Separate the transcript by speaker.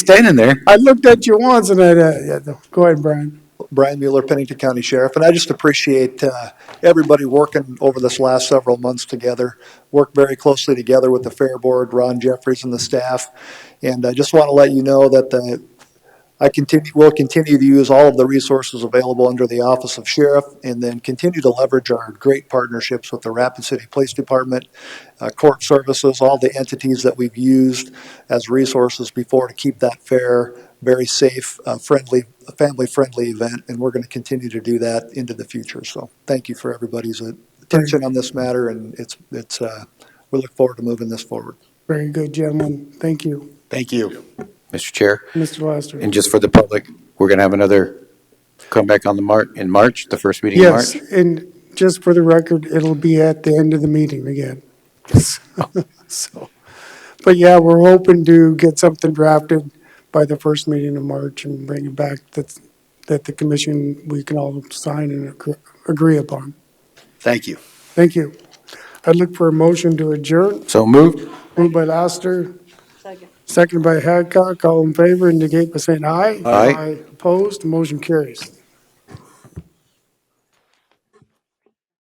Speaker 1: standing there.
Speaker 2: I looked at you once and I, uh, yeah, no. go ahead, Brian.
Speaker 3: Brian Mueller, Pennington County Sheriff, and I just appreciate uh, everybody working over this last several months together. Worked very closely together with the Fair Board, Ron Jeffries and the staff. And I just want to let you know that the, I continue, will continue to use all of the resources available under the Office of Sheriff and then continue to leverage our great partnerships with the Rapid City Police Department, uh, Court Services, all the entities that we've used as resources before to keep that fair, very safe, uh, friendly, family-friendly event, and we're going to continue to do that into the future. So thank you for everybody's uh, attention on this matter, and it's, it's, uh, we look forward to moving this forward.
Speaker 2: Very good, gentlemen. Thank you,
Speaker 1: Thank you. Mr. Chair,
Speaker 2: Mr. Lester.
Speaker 1: and just for the public, we're going to have another comeback on the Mar, in March, the first meeting in
Speaker 2: Yes,
Speaker 1: March.
Speaker 2: and just for the record, it'll be at the end of the meeting again. So, but yeah, we're hoping to get something drafted by the first meeting in March and bring it back that, that the commission, we can all sign and agree- agree upon.
Speaker 1: Thank you.
Speaker 2: Thank you. I'd look for a motion to adjourn.
Speaker 1: So moved.
Speaker 2: Moved by Lester,
Speaker 4: Second.
Speaker 2: seconded by Hadcock. All in favor indicate by saying aye.
Speaker 1: Aye.
Speaker 2: Opposed, motion carries.